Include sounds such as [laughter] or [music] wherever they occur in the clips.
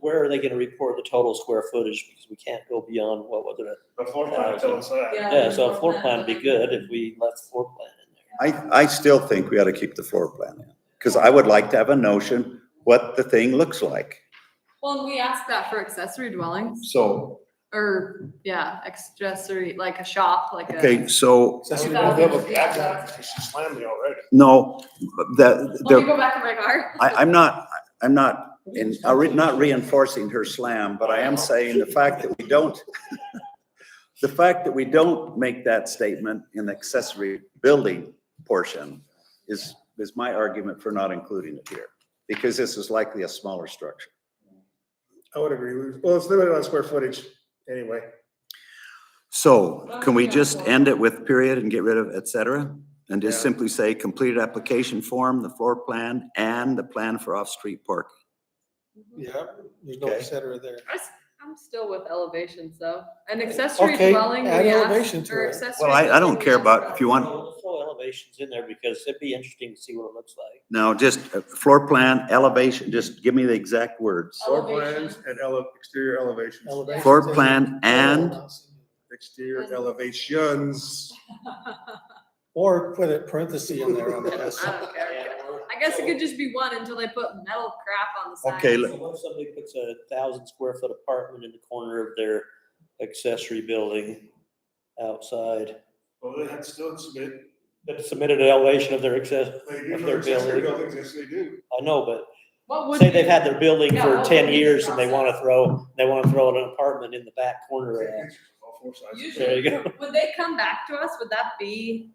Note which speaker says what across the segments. Speaker 1: where are they gonna report the total square footage? Because we can't go beyond what was it.
Speaker 2: The floor plan tells us that. uh,
Speaker 1: Yeah, so a floor plan would be good if we left floor plan in there.
Speaker 3: I, I still think we ought to keep the floor plan in, because I would like to have a notion what the thing looks like.
Speaker 4: Well, and we asked that for accessory dwellings
Speaker 3: So,
Speaker 4: or, yeah, accessory, like a shop, like a.
Speaker 3: okay, so,
Speaker 2: Since we don't have a back out, she slammed me already.
Speaker 3: no, that,
Speaker 4: Let me
Speaker 3: there,
Speaker 4: go back in my car.
Speaker 3: I, I'm not, I'm not, in, I'm re- not reinforcing her slam, but I am saying the fact that we don't, [laughs] the fact that we don't make that statement in the accessory building portion is, is my argument for not including it here, because this is likely a smaller structure.
Speaker 2: I would agree. with- Well, it's limited on square footage anyway.
Speaker 3: So can we
Speaker 4: Okay,
Speaker 3: just
Speaker 4: well-
Speaker 3: end it with period and get rid of et cetera? And just
Speaker 2: Yeah.
Speaker 3: simply say completed application form, the floor plan and the plan for off-street parking?
Speaker 5: Yeah, there's no
Speaker 3: Okay.
Speaker 5: et cetera there.
Speaker 4: I s- I'm still with elevations though. An accessory
Speaker 5: Okay,
Speaker 4: dwelling, we
Speaker 5: add elevation
Speaker 4: asked,
Speaker 5: to
Speaker 4: or
Speaker 5: it.
Speaker 4: accessory.
Speaker 3: Well, I, I
Speaker 4: building,
Speaker 3: don't
Speaker 4: we
Speaker 3: care
Speaker 4: asked [laughs]
Speaker 3: about, if you want,
Speaker 1: Throw throw elevations in there because it'd be interesting to see what it looks like.
Speaker 3: no, just uh, floor plan, elevation, just give me the exact words.
Speaker 2: Floor
Speaker 4: Elevation.
Speaker 2: plans and ele- exterior elevations,
Speaker 5: Elevations
Speaker 3: Floor
Speaker 5: and-
Speaker 3: plan and,
Speaker 2: exterior elevations.
Speaker 5: Or put a parenthesis in there on the
Speaker 4: [laughs]
Speaker 5: S.
Speaker 4: I don't care. I guess it could just be one until they put metal crap on the side.
Speaker 3: Okay,
Speaker 1: So what if somebody puts a thousand square foot apartment in the corner of their accessory building outside?
Speaker 2: Well, they had still submit,
Speaker 1: That submitted an elevation of their access,
Speaker 2: they do
Speaker 1: Of
Speaker 2: for
Speaker 1: their
Speaker 2: accessory
Speaker 1: building.
Speaker 2: buildings, yes, they do.
Speaker 1: I know, but
Speaker 4: What would
Speaker 1: say they've
Speaker 4: be-
Speaker 1: had their building
Speaker 4: Yeah,
Speaker 1: for
Speaker 4: what
Speaker 1: ten
Speaker 4: would be the
Speaker 1: years and they wanna
Speaker 4: process?
Speaker 1: throw, they wanna throw an apartment in the back corner.
Speaker 2: Take
Speaker 1: of-
Speaker 2: pictures of all four sides.
Speaker 1: There you
Speaker 4: Usually,
Speaker 1: go.
Speaker 4: would they come back to us? Would that be,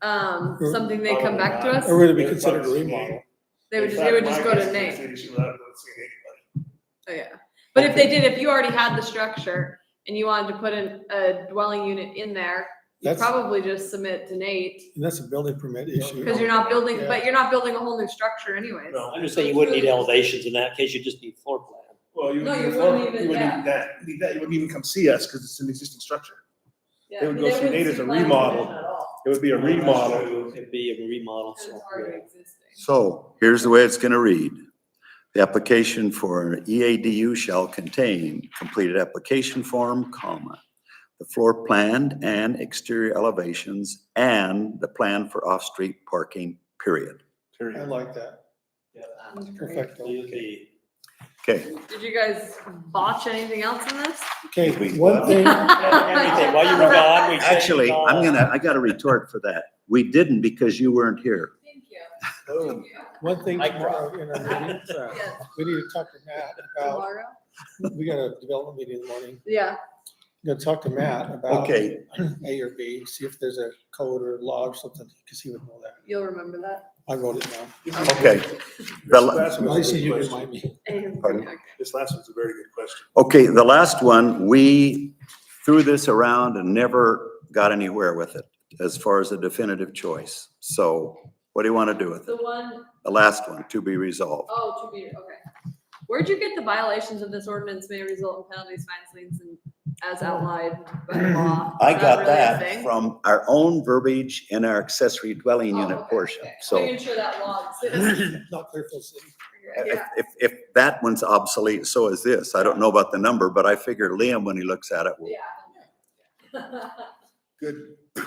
Speaker 4: um,
Speaker 5: Mm.
Speaker 4: something they come back to
Speaker 5: Or
Speaker 4: us?
Speaker 5: would it be considered a remodel?
Speaker 4: They
Speaker 2: In
Speaker 4: would, just they would
Speaker 2: fact,
Speaker 4: just
Speaker 2: my
Speaker 4: go to
Speaker 2: guess is
Speaker 4: Nate.
Speaker 2: they should not have seen anybody.
Speaker 4: Oh, yeah. But if they did, if you already had the structure and you wanted to put in a dwelling unit in there, you
Speaker 5: That's-
Speaker 4: probably just submit to Nate.
Speaker 5: And that's a building permit issue.
Speaker 4: Cause you're not building,
Speaker 5: Yeah.
Speaker 4: but you're not building a whole new structure anyways.
Speaker 2: No.
Speaker 1: I'm just saying you wouldn't need elevations in that case, you just need floor plan.
Speaker 2: Well, you
Speaker 4: No,
Speaker 2: would
Speaker 4: you
Speaker 2: need,
Speaker 4: wouldn't
Speaker 2: more-
Speaker 4: even-
Speaker 2: you would
Speaker 4: yeah.
Speaker 2: need that, you need that, you wouldn't even come see us because it's an existing structure.
Speaker 4: Yeah,
Speaker 2: They would
Speaker 4: I mean,
Speaker 2: go through Nate
Speaker 4: wouldn't
Speaker 2: as a
Speaker 4: see planning
Speaker 2: remodel.
Speaker 4: commission at all,
Speaker 2: It would be a remodel.
Speaker 1: It'd be a remodel.
Speaker 4: 'cause
Speaker 1: so,
Speaker 4: it's already
Speaker 1: yeah.
Speaker 4: existing.
Speaker 3: So here's the way it's gonna read. The application for E EADU shall contain completed application form, comma, the floor plan and exterior elevations and the plan for off-street parking, period.
Speaker 5: I like that.
Speaker 4: Um, great.
Speaker 5: Perfect.
Speaker 1: So you'd
Speaker 4: [laughs]
Speaker 1: be-
Speaker 3: Okay,
Speaker 4: Did you guys botch anything else in this?
Speaker 5: Okay, one thing,
Speaker 4: [laughs]
Speaker 1: Everything, while you were gone, we. changed it
Speaker 3: actually,
Speaker 1: all.
Speaker 3: I'm gonna, I got a retort for that. We didn't because you weren't here.
Speaker 4: Thank you.
Speaker 2: Boom.
Speaker 5: one thing
Speaker 1: Mic
Speaker 5: tomorrow in our meeting, uh,
Speaker 4: Yes,
Speaker 5: we need to talk to Matt about,
Speaker 4: tomorrow?
Speaker 5: we got a development meeting in the morning.
Speaker 4: Yeah,
Speaker 5: Gonna talk to Matt about
Speaker 3: Okay,
Speaker 5: A or B, see if there's a code or log or something, because he would know that.
Speaker 4: you'll remember that.
Speaker 5: I wrote it down.
Speaker 3: okay. The la-
Speaker 2: This last
Speaker 5: Nice
Speaker 2: one's a
Speaker 5: of
Speaker 2: good
Speaker 5: you to
Speaker 2: question.
Speaker 5: remind me.
Speaker 3: Pardon?
Speaker 4: Okay.
Speaker 2: This last one's a very good question.
Speaker 3: Okay, the last one, we threw this around and never got anywhere with it as far as a definitive choice. So what do you want to do with it?
Speaker 4: The one
Speaker 3: The last one, to be resolved.
Speaker 4: Oh, two meter, okay. Where'd you get the violations of this ordinance may result in penalties, fines, liens, and as outlined by law?
Speaker 3: [clears throat] I
Speaker 4: Is
Speaker 3: got
Speaker 4: really a
Speaker 3: that
Speaker 4: thing?
Speaker 3: from our own verbiage in our accessory dwelling
Speaker 4: Oh,
Speaker 3: unit
Speaker 4: okay,
Speaker 3: portion.
Speaker 4: okay. Oh,
Speaker 3: So
Speaker 4: Making sure that law exists.
Speaker 3: [clears throat]
Speaker 5: Not Clearfield City.
Speaker 3: if,
Speaker 4: Yeah.
Speaker 3: if, if that one's obsolete, so is this. I don't know about the number, but I figure Liam, when he looks at it, will.
Speaker 4: Yeah.
Speaker 2: Good.
Speaker 4: [laughs]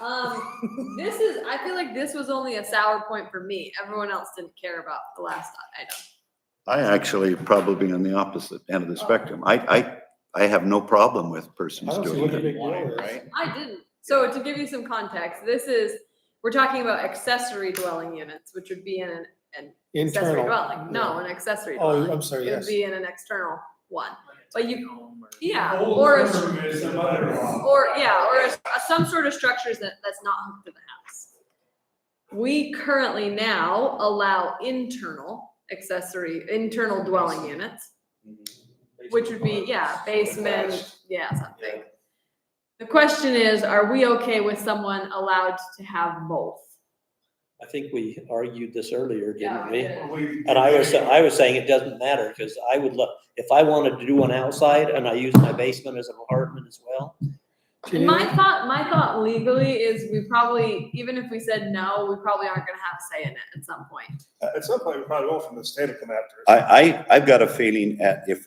Speaker 4: Um, this is, I feel like this was only a sour point for me. Everyone else didn't care about the last item.
Speaker 3: I actually probably on the opposite end of the spectrum. I, I, I have no problem with
Speaker 5: I
Speaker 3: persons
Speaker 5: don't see
Speaker 3: doing
Speaker 5: what the
Speaker 3: it.
Speaker 5: big deal is.
Speaker 2: Right?
Speaker 4: I didn't. So to give you some context, this is, we're talking about accessory dwelling units, which would be in an an accessory
Speaker 5: Internal.
Speaker 4: dwelling. No, an accessory dwelling.
Speaker 5: Oh, I'm sorry,
Speaker 4: It would
Speaker 5: yes.
Speaker 4: be in an external one, but you, yeah, or, Oh, a s- or, yeah, or a s- a- some sort of structures that, that's not hooked to the house. We currently now allow internal accessory, internal dwelling units, which would be, yeah, basement, yeah, something. The question is, are we okay with someone allowed to have both?
Speaker 1: I think we argued this earlier,
Speaker 4: Yeah,
Speaker 1: didn't
Speaker 4: we
Speaker 1: we?
Speaker 4: did.
Speaker 1: And I was, I was saying it doesn't matter, because I would love, if I wanted to do one outside and I use my basement as an apartment as well,
Speaker 5: Can you-
Speaker 4: My thought, my thought legally is we probably, even if we said no, we probably aren't gonna have a say in it at some point.
Speaker 2: At some point, we probably will from the state will come after us.
Speaker 3: I, I, I've got a feeling at, if